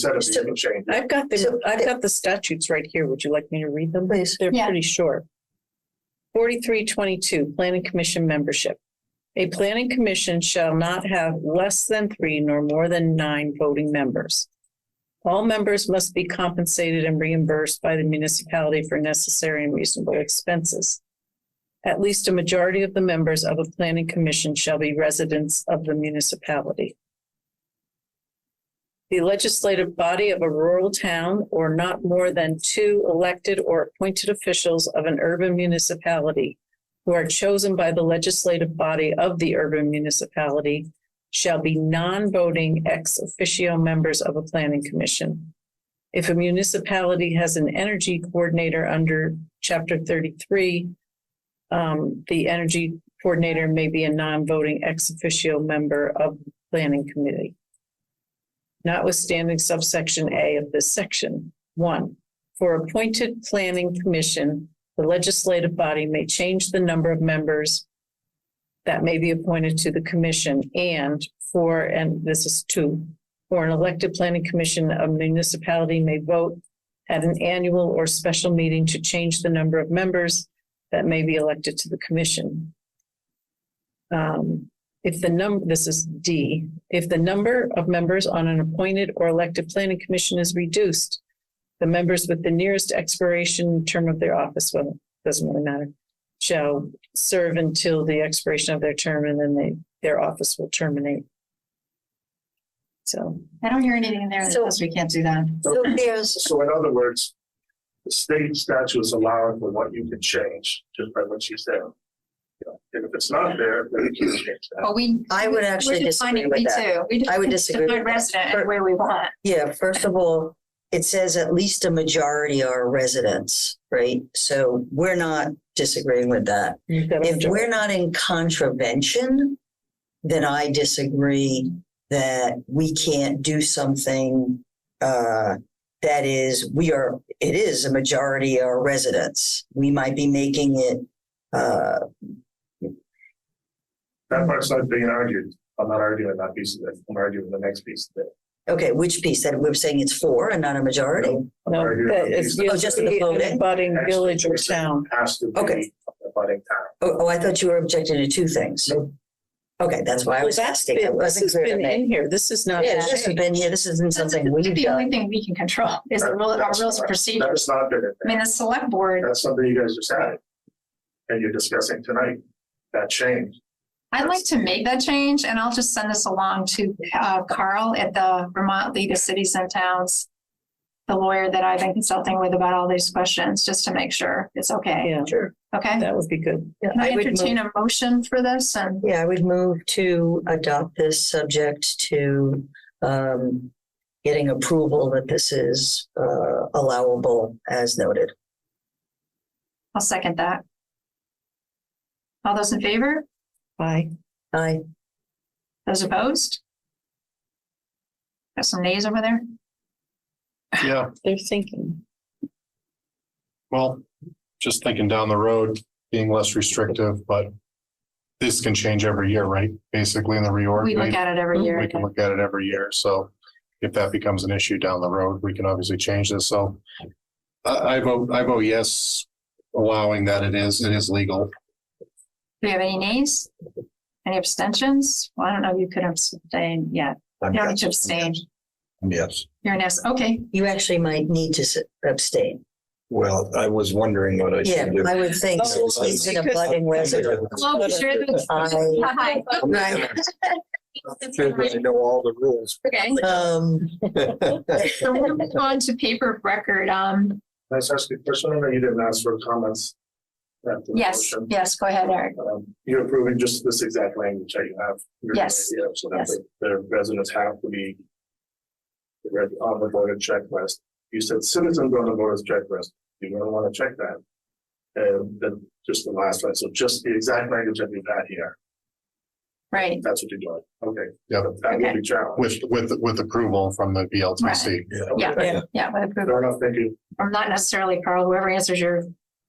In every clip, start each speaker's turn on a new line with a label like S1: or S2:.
S1: set of the other changes.
S2: I've got
S3: So-
S2: the, I've got the statutes right here. Would you like me to read them?
S3: Please.
S2: They're
S4: Yeah.
S2: pretty short. Forty-three twenty-two, planning commission membership. A planning commission shall not have less than three nor more than nine voting members. All members must be compensated and reimbursed by the municipality for necessary and reasonable expenses. At least a majority of the members of a planning commission shall be residents of the municipality. The legislative body of a rural town or not more than two elected or appointed officials of an urban municipality who are chosen by the legislative body of the urban municipality shall be non-voting ex officio members of a planning commission. If a municipality has an energy coordinator under chapter thirty-three, um, the energy coordinator may be a non-voting ex officio member of the planning committee notwithstanding subsection A of this section. One, for appointed planning commission, the legislative body may change the number of members that may be appointed to the commission and for, and this is two, for an elected planning commission, a municipality may vote at an annual or special meeting to change the number of members that may be elected to the commission. Um, if the num, this is D, if the number of members on an appointed or elected planning commission is reduced, the members with the nearest expiration term of their office, well, doesn't really matter, shall serve until the expiration of their term and then they, their office will terminate. So,
S4: I don't hear anything in there that
S3: So-
S4: says we can't do that.
S3: So there's,
S1: So in other words, the state statute is allowing for what you can change just by what you said. You know, And if it's not there, then you can't change that.
S4: But we.
S3: I would
S4: we're
S3: actually disagree
S4: defining
S3: with
S4: we
S3: that.
S4: too. We
S3: I would
S4: define
S3: disagree
S4: define
S3: with that.
S4: Resident
S3: For-
S4: and where we want.
S3: yeah, first of all, it says at least a majority are residents, right? So we're not disagreeing with that.
S2: you've got
S3: If
S2: to
S3: we're not in contravention, then I disagree that we can't do something uh, that is, we are, it is a majority of our residents. We might be making it, uh,
S1: That part's not being argued. I'm not arguing that piece of it. I'm arguing the next piece of it.
S3: okay, which piece that we're saying it's for and not a majority?
S1: I'm
S2: no,
S1: arguing
S2: that
S1: the
S2: is
S1: piece
S3: Oh, just the
S2: usually an
S3: voting?
S2: abutting village or town.
S1: that Has to be
S3: Okay.
S1: a budding town.
S3: Oh, oh, I thought you were objecting to two things.
S1: Nope.
S3: Okay, that's why I
S2: Well,
S3: was
S2: that's
S3: asking. It
S2: been, this
S3: wasn't
S2: has
S3: clear to
S2: been
S3: me.
S2: in here. This is not.
S3: Yeah, this hasn't been here. This isn't something
S4: That's
S3: we've
S4: The only
S3: done.
S4: thing we can control is the rule, our rules of procedure.
S1: That is not been in
S4: I
S1: there.
S4: mean, the select board,
S1: That's something you guys just had. And you're discussing tonight, that change.
S4: I'd like to make that change and I'll just send this along to uh, Carl at the Vermont League of Cities and Towns, the lawyer that I've been consulting with about all these questions, just to make sure it's okay.
S2: Yeah,
S3: Sure.
S4: Okay?
S2: that would be good.
S3: Yeah,
S4: Can I
S3: would move-
S4: entertain a motion for this and
S3: Yeah, I would move to adopt this subject to um, getting approval that this is uh, allowable as noted.
S4: I'll second that. All those in favor?
S2: Bye.
S3: I,
S4: Those opposed? Got some nays over there?
S5: Yeah,
S2: They're thinking.
S5: well, just thinking down the road, being less restrictive, but this can change every year, right? Basically in the reorg.
S4: We look at it every year.
S5: We can look at it every year. So if that becomes an issue down the road, we can obviously change this. So I, I vote, I vote yes, allowing that it is, it is legal.
S4: Do we have any nays? Any abstentions? Well, I don't know if you could abstain yet. You don't need to abstain.
S6: Yes,
S4: You're an S. Okay,
S3: you actually might need to s- abstain.
S6: well, I was wondering what I
S3: Yeah,
S6: should do.
S3: I would think
S6: Oh,
S3: so. He's an
S2: because-
S3: abutting resident.
S4: Well, we sure did.
S3: I,
S4: Hi.
S6: Should I know all the rules.
S4: Okay,
S3: um,
S4: so we're gonna go on to paper of record. Um,
S1: That's actually personal, or you didn't ask for comments? after the
S4: yes,
S1: motion?
S4: yes, go ahead, Eric.
S1: Um, You're approving just this exact language that you have.
S4: Yes.
S1: Yeah, so that
S4: Yes.
S1: the- the residents have to be read on the voter checklist. You said citizens on the voter's checklist. You're gonna wanna check that. And then just the last one, so just the exact language that we've had here,
S4: Right,
S1: that's what you're doing, okay?
S5: Yeah.
S1: That will
S4: Okay.
S1: be challenged.
S5: With, with, with approval from the BLTC.
S4: yeah,
S3: Yeah.
S4: yeah, with approval.
S1: Fair enough, thank you.
S4: Or not necessarily Carl, whoever answers your,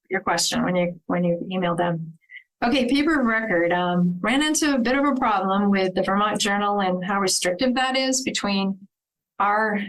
S4: your question when you, when you email them. Okay, paper of record, um, ran into a bit of a problem with the Vermont Journal and how restrictive that is between our